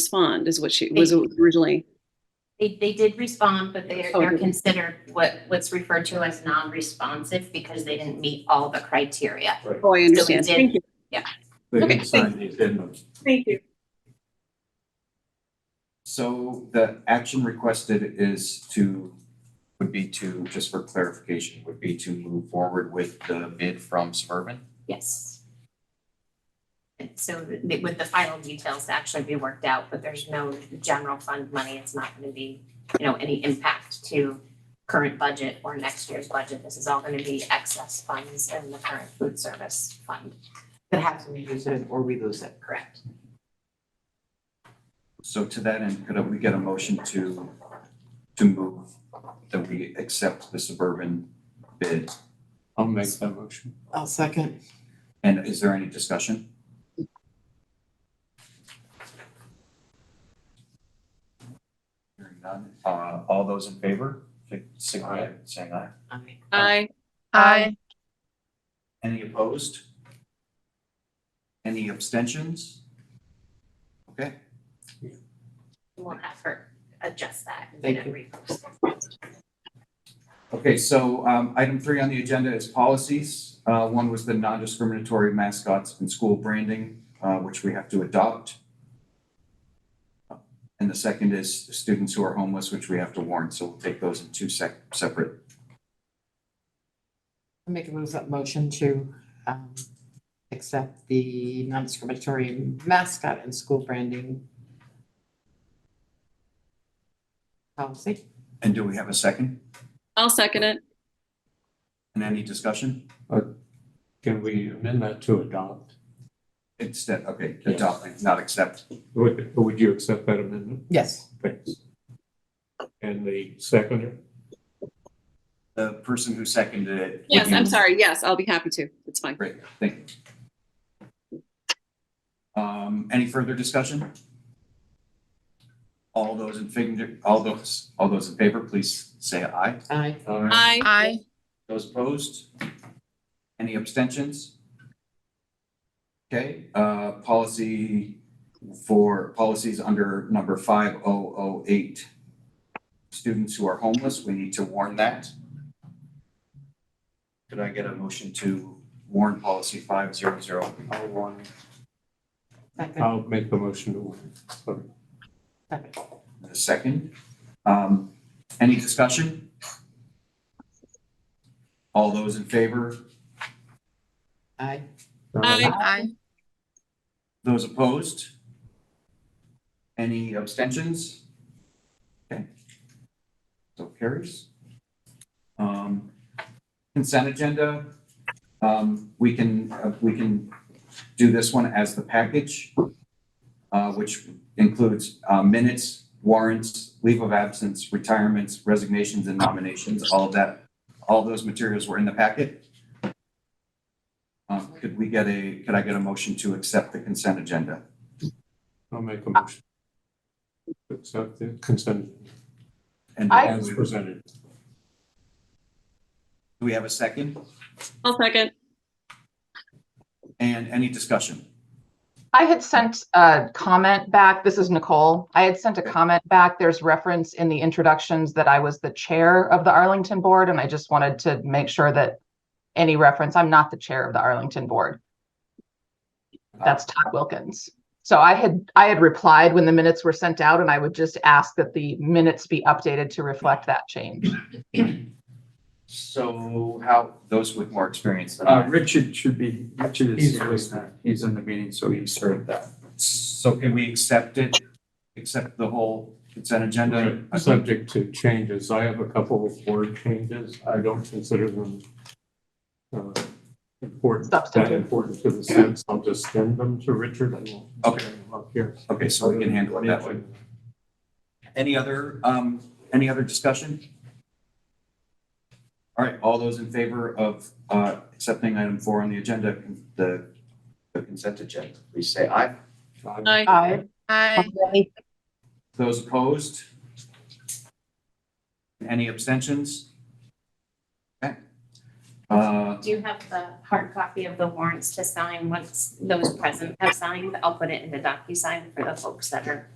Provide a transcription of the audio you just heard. respond is what she was originally. They, they did respond, but they're, Oh, they're did they? considered what, what's referred to as non-responsive because they didn't meet all the criteria. Oh, I understand. did. Thank you. They Okay, can sign the addendum. Thank you. So the action requested is to, would be to, just for clarification, would be to move forward with the bid from Suburban? Yes. And so th- with the final details to actually be worked out, but there's no general fund money. It's not going to be, you know, any impact to current budget or next year's budget. This is all going to be excess funds in the current food service fund. that has to be used it or we lose it. Correct. So to that end, could we get a motion to, to move that we accept the Suburban bid? I'll make that motion. I'll second. And is there any discussion? Hearing none, uh, all those in favor, signify by saying aye. Aye. Aye. Aye. Any opposed? Any abstentions? Okay, We'll have her adjust that and Thank then repost. okay, so um item three on the agenda is policies. Uh one was the non-discriminatory mascots and school branding, uh which we have to adopt. And the second is students who are homeless, which we have to warn, so we'll take those in two sec- separate. I Make a move that motion to um accept the non-discriminatory mascot and school branding. Policy. And do we have a second? I'll second it. And any discussion? Can we amend that to adopt? Instead, okay, Yes. adopting, not accept. Would, would you accept that amendment? Yes. Thanks. And the seconder? The person who seconded it. would Yes, you- I'm sorry. Yes, I'll be happy to. It's fine. Great, thank you. Um, any further discussion? All those in favor, all those, all those in favor, please say aye. Aye. Aye. Aye. Aye. Those opposed? Any abstentions? Okay, uh, policy for policies under number five oh oh eight. Students who are homeless, we need to warn that. Could I get a motion to warn policy five zero zero? I'll warn. Second. I'll make the motion to warn. Sorry. Second. A second. Um, any discussion? All those in favor? Aye. Aye. Aye. Those opposed? Any abstentions? Okay. So carries. Um, consent agenda, um, we can, uh, we can do this one as the package, uh, which includes, uh, minutes, warrants, leave of absence, retirements, resignations and nominations, all of that. All those materials were in the packet. Um, could we get a, could I get a motion to accept the consent agenda? I'll make a motion. to Accept the consent And I- as presented. Do we have a second? I'll second. And any discussion? I had sent a comment back. This is Nicole. I had sent a comment back. There's reference in the introductions that I was the chair of the Arlington Board, and I just wanted to make sure that any reference, I'm not the chair of the Arlington Board. That's Todd Wilkins. So I had, I had replied when the minutes were sent out, and I would just ask that the minutes be updated to reflect that change. So how, those with more experience than Uh, I. Richard should be, Richard He's is here, he's not- he's in the meeting, so he served that. So can we accept it, accept the whole consent agenda? Right. uh, Subject to changes. I have a couple of word changes. I don't consider them uh, important, that Substantive. important to the sense. I'll just send them to Richard and we'll Okay. bring them up here. Okay, so we can handle it that way. Any other, um, any other discussion? All right, all those in favor of, uh, accepting item four on the agenda, the, the consent agenda, please say aye. Aye. Aye. I, Aye. Those opposed? Any abstentions? Okay. Uh, Do you have the hard copy of the warrants to sign once those present have signed? I'll put it in the DocuSign for the folks that are